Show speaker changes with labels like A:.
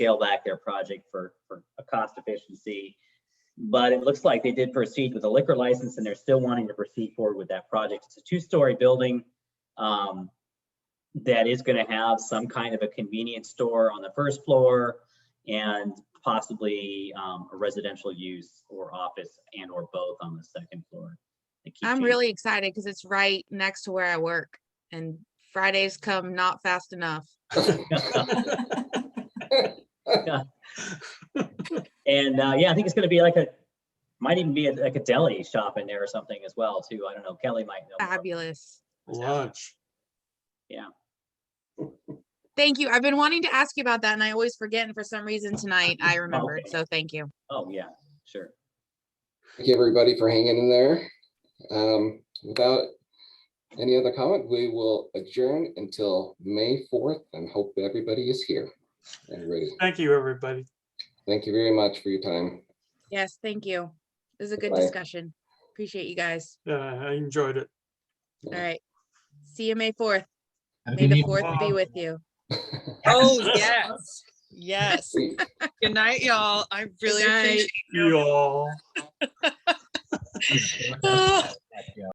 A: scale back their project for, for a cost efficiency. But it looks like they did proceed with a liquor license and they're still wanting to proceed forward with that project. It's a two-story building. um, that is gonna have some kind of a convenience store on the first floor and possibly, um, a residential use or office and or both on the second floor. They keep
B: I'm
A: changing-
B: really excited because it's right next to where I work and Fridays come not fast enough.
A: And uh, yeah, I think it's going to be like a, might even be a- like a deli shop in there or something as well too. I don't know. Kelly might know. more.
B: Fabulous.
C: Lunch.
B: Thank you. I've been wanting to ask you about that and I always forget. And for some reason tonight I remembered.
A: okay.
B: So thank you.
A: Oh, yeah, sure.
D: Thank you, everybody, for hanging in there. Um, Without any other comment, we will adjourn until May 4th and hope everybody is here and ready.
C: Thank you, everybody.
D: Thank you very much for your time.
B: Yes, thank you. This is a good
D: Bye.
B: discussion. Appreciate you guys.
C: Uh, I enjoyed it.
B: All
D: Yeah.
B: right. See you May 4th.
E: Have a
B: May
E: good
B: the
E: evening.
B: 4th be with you.
F: Oh, yes. Yes.
D: Sweet.
F: Good night, y'all. I really
B: night.
F: appreciate
C: You all.
F: it.